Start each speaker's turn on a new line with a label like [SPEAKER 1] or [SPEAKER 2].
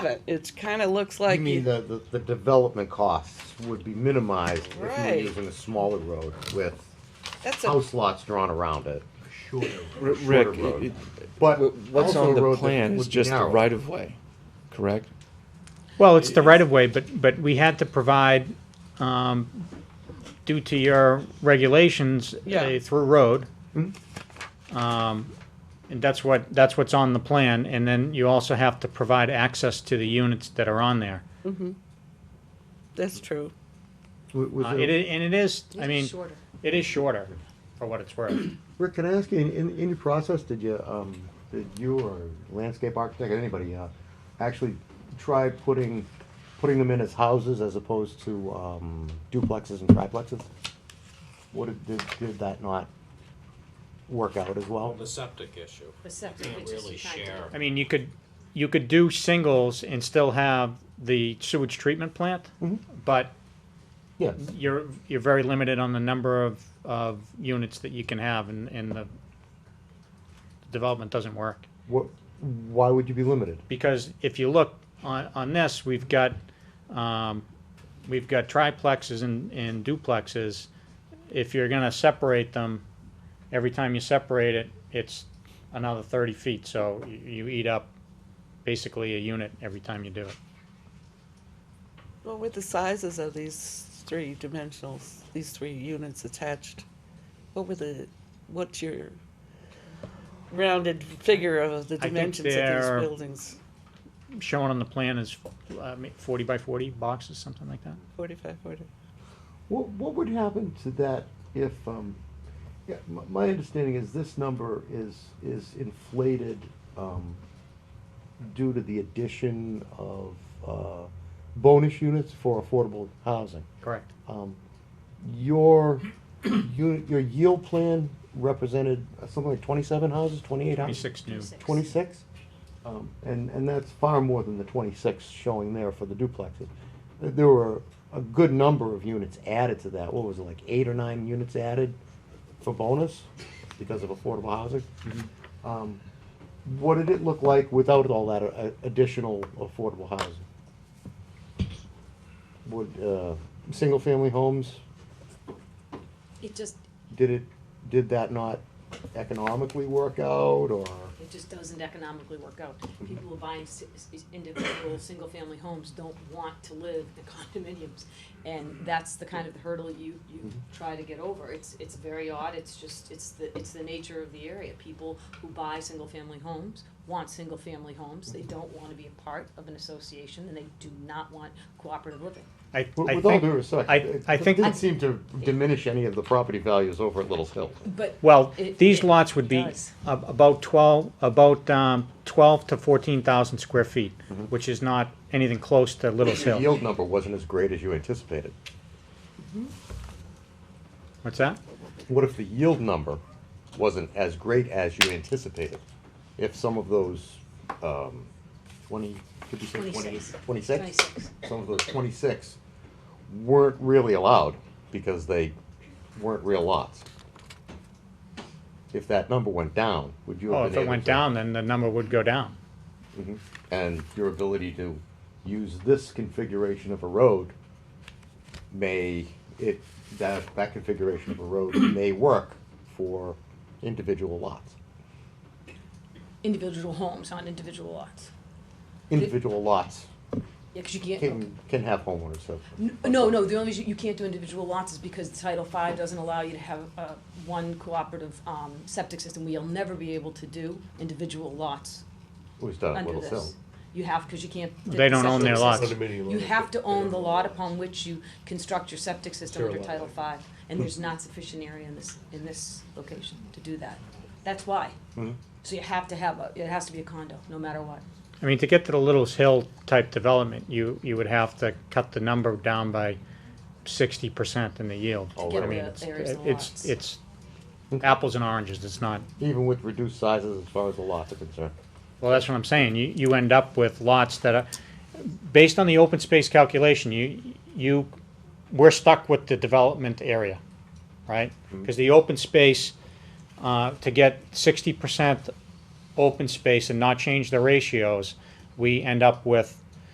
[SPEAKER 1] it. It's kind of looks like
[SPEAKER 2] You mean the, the, the development costs would be minimized if you were
[SPEAKER 1] Right.
[SPEAKER 2] using a smaller road with
[SPEAKER 1] that's a
[SPEAKER 2] house lots drawn around it.
[SPEAKER 3] Shorter
[SPEAKER 4] R-
[SPEAKER 3] road.
[SPEAKER 4] Rick,
[SPEAKER 2] Shorter road.
[SPEAKER 4] it- it-
[SPEAKER 2] But
[SPEAKER 4] wh- what's
[SPEAKER 2] also a
[SPEAKER 4] on the
[SPEAKER 2] road that
[SPEAKER 4] plan is
[SPEAKER 2] would be
[SPEAKER 4] just the
[SPEAKER 2] narrow.
[SPEAKER 4] right of way, correct?
[SPEAKER 5] Well, it's the right of way, but, but we had to provide, um, due to your regulations,
[SPEAKER 1] Yeah.
[SPEAKER 5] a through road. Um, and that's what, that's what's on the plan, and then you also have to provide access to the units that are on there.
[SPEAKER 1] that's true.
[SPEAKER 2] W- was
[SPEAKER 5] Uh,
[SPEAKER 2] it-
[SPEAKER 5] it i- and it is, I
[SPEAKER 6] It's
[SPEAKER 5] mean,
[SPEAKER 6] shorter.
[SPEAKER 5] it is shorter, for what it's worth.
[SPEAKER 2] Rick, can I ask you, in, in, in your process, did you, um, did you or landscape architect, or anybody, uh, actually try putting, putting them in as houses as opposed to, um, duplexes and triplexes? What did, did, did that not work out as well?
[SPEAKER 7] The septic issue.
[SPEAKER 6] The septic,
[SPEAKER 7] Can't
[SPEAKER 6] which is
[SPEAKER 7] really
[SPEAKER 6] kind of-
[SPEAKER 7] share.
[SPEAKER 5] I mean, you could, you could do singles and still have the sewage treatment plant, but
[SPEAKER 2] Yeah,
[SPEAKER 5] you're, you're very limited on the number of, of units that you can have and, and the development doesn't work.
[SPEAKER 2] what, why would you be limited?
[SPEAKER 5] Because if you look on, on this, we've got, um, we've got triplexes and, and duplexes. If you're gonna separate them, every time you separate it, it's another thirty feet, so you, you eat up basically a unit every time you do it.
[SPEAKER 1] Well, with the sizes of these three dimensionals, these three units attached, what were the, what's your rounded figure of the
[SPEAKER 5] I think
[SPEAKER 1] dimensions of
[SPEAKER 5] they're-
[SPEAKER 1] these buildings?
[SPEAKER 5] Shown on the plan is, uh, forty by forty boxes, something like that.
[SPEAKER 1] Forty-five, forty.
[SPEAKER 2] What, what would happen to that if, um, yeah, my, my understanding is this number is, is inflated, um, due to the addition of, uh, bonus units for affordable housing.
[SPEAKER 5] Correct.
[SPEAKER 2] Um, your, you, your yield plan represented something like twenty-seven houses, twenty-eight houses?
[SPEAKER 5] Twenty-six new.
[SPEAKER 6] Six.
[SPEAKER 2] Twenty-six? Um, and, and that's far more than the twenty-six showing there for the duplexes. Th- There were a good number of units added to that, what was it, like eight or nine units added for bonus because of affordable housing? Um, What did it look like without all that uh, additional affordable housing? Would, uh, single-family homes,
[SPEAKER 6] It just,
[SPEAKER 2] did it, did that not economically work out, or?
[SPEAKER 6] it just doesn't economically work out. People who are buying si- s- individual, single-family homes don't want to live in condominiums. And that's the kind of hurdle you,
[SPEAKER 5] Mm-hmm.
[SPEAKER 6] you try to get over. It's, it's very odd, it's just, it's the, it's the nature of the area. People who buy single-family homes want single-family homes. They don't want to be a part of an association, and they do not want cooperative living.
[SPEAKER 5] I,
[SPEAKER 2] With
[SPEAKER 5] I
[SPEAKER 2] with all
[SPEAKER 5] think,
[SPEAKER 2] due respect,
[SPEAKER 5] I-
[SPEAKER 2] it
[SPEAKER 5] I think-
[SPEAKER 2] didn't seem to diminish any of the property values over at Little's Hill.
[SPEAKER 6] But
[SPEAKER 5] well,
[SPEAKER 6] It-
[SPEAKER 5] these
[SPEAKER 6] it
[SPEAKER 5] lots would be
[SPEAKER 6] does.
[SPEAKER 5] ab- about twelve, about, um, twelve to fourteen thousand square feet,
[SPEAKER 2] Mm-hmm.
[SPEAKER 5] which is not anything close to Little's
[SPEAKER 2] The
[SPEAKER 5] Hill.
[SPEAKER 2] yield number wasn't as great as you anticipated.
[SPEAKER 5] What's that?
[SPEAKER 2] What if the yield number wasn't as great as you anticipated? If some of those, um, twenty, could you say twenty,
[SPEAKER 6] Twenty-six.
[SPEAKER 2] twenty-six?
[SPEAKER 6] 26.
[SPEAKER 2] Some of those twenty-six weren't really allowed because they weren't real lots. If that number went down, would you have
[SPEAKER 5] Oh,
[SPEAKER 2] been
[SPEAKER 5] if
[SPEAKER 2] able
[SPEAKER 5] it went
[SPEAKER 2] to-
[SPEAKER 5] down, then the number would go down.
[SPEAKER 2] and your ability to use this configuration of a road may, it, that, that configuration of a road may work for individual lots.
[SPEAKER 6] individual homes on individual lots.
[SPEAKER 2] Individual lots
[SPEAKER 6] Yeah, 'cause you can't.
[SPEAKER 2] can, can have homeowners, so.
[SPEAKER 6] N- No, no, the only reason you can't do individual lots is because Title V doesn't allow you to have, uh, one cooperative, um, septic system. We'll never be able to do individual lots
[SPEAKER 2] It was done at
[SPEAKER 6] under
[SPEAKER 2] Little Hill.
[SPEAKER 6] this. You have, cause you can't. fit
[SPEAKER 5] They don't own
[SPEAKER 6] septic
[SPEAKER 5] their
[SPEAKER 6] system.
[SPEAKER 5] lots.
[SPEAKER 3] Condominium
[SPEAKER 6] You
[SPEAKER 3] owners,
[SPEAKER 6] have to
[SPEAKER 3] they
[SPEAKER 6] own
[SPEAKER 3] don't
[SPEAKER 6] the
[SPEAKER 3] own
[SPEAKER 6] lot
[SPEAKER 3] lots.
[SPEAKER 6] upon which you construct your septic system
[SPEAKER 3] Sure,
[SPEAKER 6] under
[SPEAKER 3] lot
[SPEAKER 6] Title
[SPEAKER 3] line.
[SPEAKER 6] V, and there's not sufficient area in this, in this location to do that. That's why. So you have to have, a- it has to be a condo, no matter what.
[SPEAKER 5] I mean, to get to the Little's Hill type development, you, you would have to cut the number down by sixty percent in the yield.
[SPEAKER 2] Oh,
[SPEAKER 6] get
[SPEAKER 5] I
[SPEAKER 2] really?
[SPEAKER 5] mean,
[SPEAKER 6] the
[SPEAKER 5] it's-
[SPEAKER 6] areas and
[SPEAKER 5] It's,
[SPEAKER 6] lots.
[SPEAKER 5] it's apples and oranges, it's not,
[SPEAKER 2] Even with reduced sizes as far as the lots are concerned.
[SPEAKER 5] well, that's what I'm saying, you, you end up with lots that are, based on the open space calculation, you, you, we're stuck with the development area, right? Because the open space, uh, to get sixty percent open space and not change the ratios, we end up with